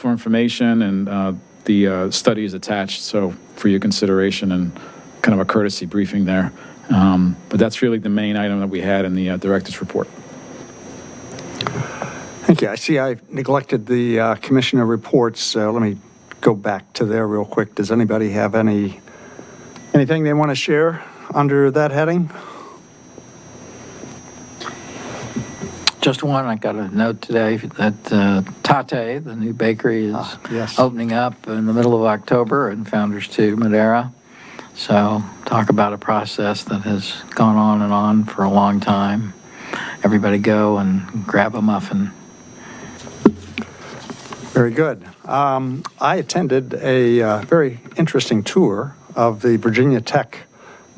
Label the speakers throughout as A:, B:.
A: for information, and uh, the uh, study is attached, so for your consideration and kind of a courtesy briefing there. Um, But that's really the main item that we had in the uh, director's report.
B: Thank you. I see I neglected the uh, commissioner reports, so let me go back to there real quick. Does anybody have any, anything they want to share under that heading?
C: Just one, I got a note today that uh, Tate, the new bakery,
B: Ah,
C: is
B: yes.
C: opening up in the middle of October in Founders Two, Madera. So talk about a process that has gone on and on for a long time. Everybody go and grab a muffin.
B: Very good. Um, I attended a uh, very interesting tour of the Virginia Tech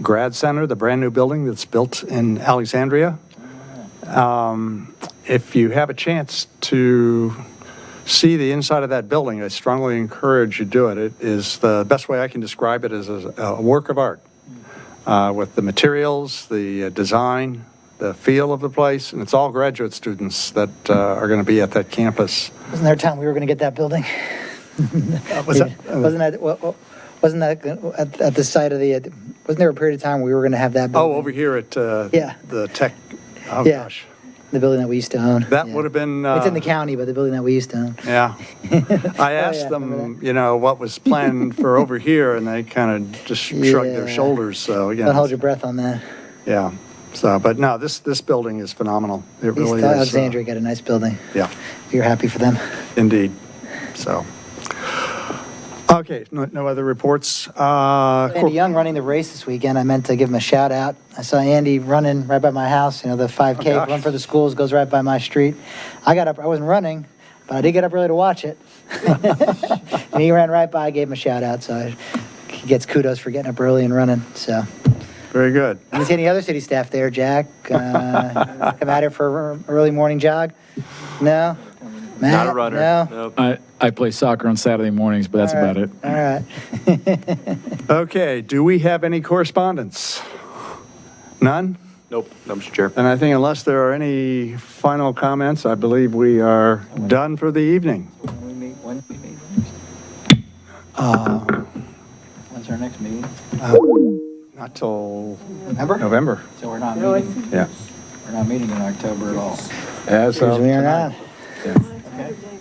B: Grad Center, the brand-new building that's built in Alexandria. Um, If you have a chance to see the inside of that building, I strongly encourage you do it. It is, the best way I can describe it is a a work of art uh, with the materials, the uh, design, the feel of the place, and it's all graduate students that uh, are going to be at that campus.
D: Wasn't there a time we were going to get that building?
B: Uh, Was that-
D: Wasn't that, wa- wa- wasn't that at, at the site of the, wasn't there a period of time we were going to have that building?
B: Oh, over here at uh,
D: Yeah.
B: the tech, oh
D: Yeah.
B: gosh.
D: The building that we used to own.
B: That
D: Yeah.
B: would have been.
D: It's in the
B: uh,
D: county, but the building that we used to own.
B: Yeah. I
D: yeah,
B: asked
D: I
B: them,
D: remember
B: you know, what was planned for over here, and they kind of just shrugged their
D: Yeah.
B: shoulders, so, you
D: Don't hold your
B: know.
D: breath on that.
B: Yeah, so, but no, this, this building is phenomenal. It
D: At least
B: really is. uh,
D: Alexandria got a nice building.
B: Yeah,
D: If you're happy for them.
B: indeed, so. Okay, no, no other reports. Uh, cor-
D: Andy Young running the race this weekend. I meant to give him a shout out. I saw Andy running right by my house. You know, the 5K
B: gosh.
D: run for the schools goes right by my street. I got up. I wasn't running, but I did get up early to watch it. and he ran right by. I gave him a shout out. So I, he gets kudos for getting up early and running. So.
B: Very good.
D: And you see any other city staff there, Jack? Uh, come out here for an early morning jog? No?
E: Not a
D: Matt?
E: runner.
D: No?
E: Nope.
A: I I play soccer on Saturday mornings, but that's
D: All right,
A: about it.
D: All right.
B: Okay, do we have any correspondence? None?
E: Nope. No, Mr. Chair.
B: And I think unless there are any final comments, I believe we are done for the evening.
C: When's our next meeting?
B: Not till
C: Remember?
B: November.
C: So we're not meeting,
B: Yeah.
C: we're not meeting in October at all.
B: As
D: Here's we are not.
B: tonight.